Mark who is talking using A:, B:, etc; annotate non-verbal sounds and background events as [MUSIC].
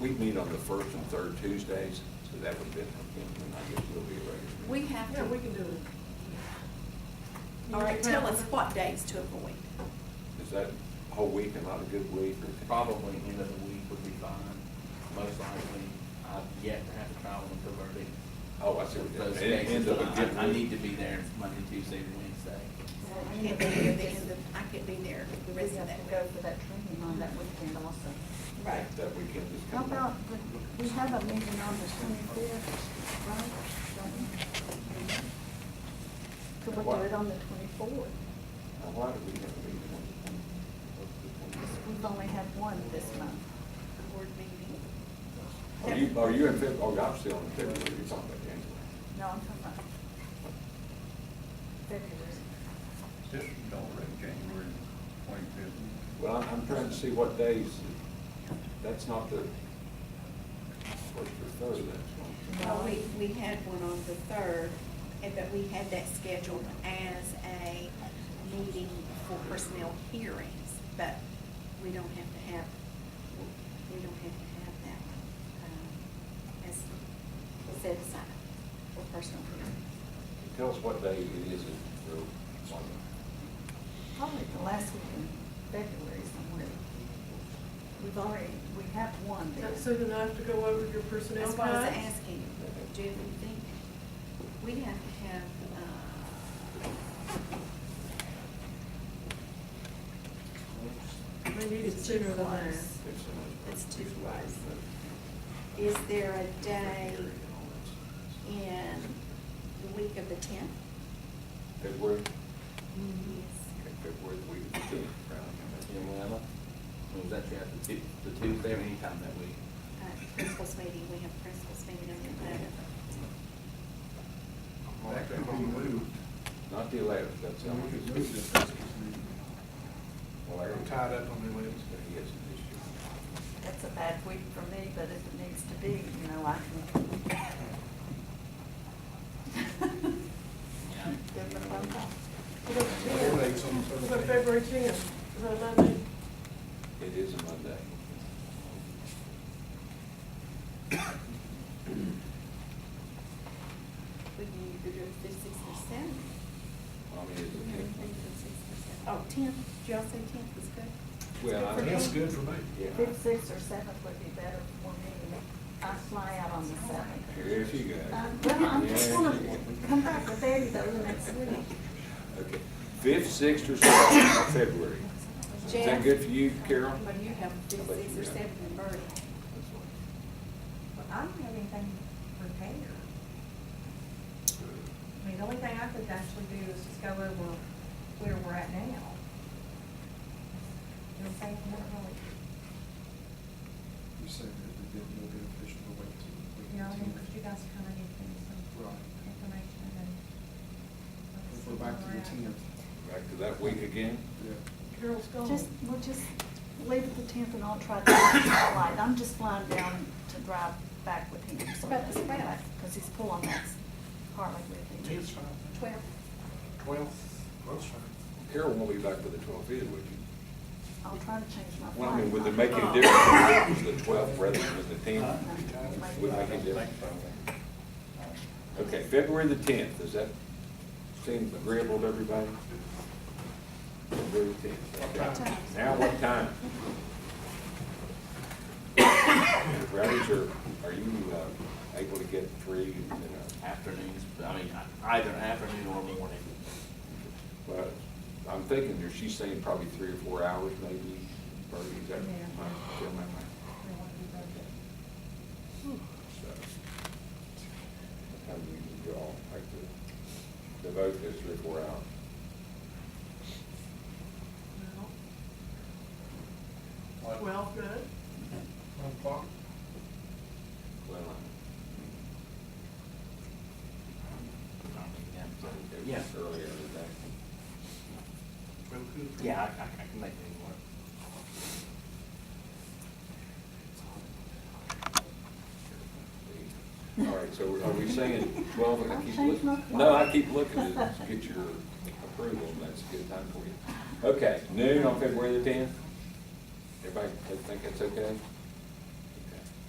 A: we meet on the first and third Tuesdays, so that would be, and I guess we'll be ready.
B: We have to.
C: Yeah, we can do it.
B: All right, tell us what days to avoid.
A: Is that whole week and not a good week or?
D: Probably end of the week would be fine, most likely, I've yet to have to travel until early.
A: Oh, I see what you're
D: Those
A: saying. It ends
D: cases,
A: up a
D: but
A: good
D: I, I
A: week.
D: need to be there Monday, Tuesday, and Wednesday.
B: I can't be there the end of, I can't be there the
E: We
B: rest
E: have
B: of
E: to
B: that
E: go
B: week.
E: for that training on that weekend also.
B: Right.
A: That weekend is
E: How
A: coming
E: about,
A: up.
E: the- we have a meeting on the twenty-fifth, right? Don't we? Could we do it on the twenty-fourth?
A: Now, why do we have a meeting on the twenty- on the twenty?
E: We've only had one this month.
B: Board meeting.
A: Are you, are you in February, oh, I'm still in February, you're talking about January.
E: No, I'm talking about February.
F: This is already January twenty-fifth.
A: Well, I'm, I'm trying to see what days, that's not the, what's the third, that's
B: Well, we, we had one on the third, and, but we had that scheduled as a meeting for personnel hearings, but we don't have to have, we don't have to have that one, um, as set aside for personal hearings.
A: one. Tell us what day it is, that we're on
E: Probably the last week in February somewhere. We've already, we have one there.
C: That's soon enough to go over your personnel
B: That's why I was
C: guide?
B: asking, do you think, we have to have, uh,
C: We need it
B: It's
C: sooner than that.
B: close.
A: It's the most-
B: That's too
A: it's the last
B: wise.
A: day.
B: is there a day
A: February and all that stuff.
B: in the week of the tenth?
A: February,
B: Yes.
A: okay, February, the week of the tenth, probably.
D: Yeah, well, I was actually at the Tu- the Tuesday, or anytime that week.
B: Uh, Principals meeting, we have principals meeting on the eleventh.
F: That could be moved.
A: Not the eleventh, that's how
F: We
A: much
F: could
A: it's.
F: move this business meeting.
A: Well, I-
F: I'm tied up on the
A: Yes,
F: eleventh.
A: it is this year.
E: That's a bad week for me, but if it needs to be, you know, I can.
D: Yeah.
E: Give them a phone call.
C: What about the tenth?
F: Four days on the
C: What about
F: Thursday.
C: February tenth? Is that a Monday?
A: It is a Monday.
B: We can either do it the sixth or seventh.
A: Mommy is
B: We have
A: a
B: anything
A: tenth.
B: for the sixth or seventh. Oh, tenth, did y'all say tenth is good?
A: Well, I-
B: for
F: That's
B: me.
F: good for me.
A: Yeah.
E: Fifth, sixth, or seventh would be better for me. I fly out on the seventh.
A: Here she goes.
E: Uh, Well, I'm just
A: There
E: gonna
A: she goes.
E: come back with Eddie though the next week.
A: Okay, fifth, sixth, or seventh of February. Is that
B: Jeff?
A: good for you, Carol?
B: Well, you have the sixth or seventh in Berlin.
G: Well, I don't have anything prepared. I mean, the only thing I could actually do is just go over where we're at now. You know, what I'm saying, we're really,
F: You said that it didn't look official to wait till. the week
G: you know,
F: until-
G: because you guys kind of need to give me some
F: Right.
G: information and.
F: If we're back to the tenth,
A: Back to that week again?
F: yeah.
C: Carol's gone.
E: Just, we'll just leave the tenth and I'll try to [COUGHS] fly. I'm just flying down to drive back with him. so
B: About the spread.
E: Because he's pulling that Harley with him.
F: Tenth's fine.
B: Twelve.
F: Twelfth, twelve's fine.
A: Carol won't be back for the twelfth either, would you?
E: I'll try to change my flight.
A: Well, I mean, would it make any
E: [COUGHS]
A: difference if it was the twelfth rather than the
F: Huh?
A: tenth? Would it make any difference? Okay, February the tenth, does that seem agreeable to everybody? February tenth.
F: What time?
A: Now what time? Rowdies, are, are you uh, able to get three, uh, you know?
D: Afternoons, I mean, either afternoon or morning.
A: Well, I'm thinking there, she's saying probably three or four hours maybe, or is that,
G: Yeah.
A: I feel my mind. So, How do you, you all like to devote this three or four hours?
C: Well, Twelve, good.
F: One o'clock?
A: Well, I'm,
D: Yeah.
A: it was earlier than that.
F: Twelve good.
D: Yeah, I, I I can make it work.
A: All right, so are we saying twelve, I keep
E: Change my
A: looking, no, I keep looking to get your approval, and that's a good time for you. Okay, noon on February the tenth? Everybody think that's okay?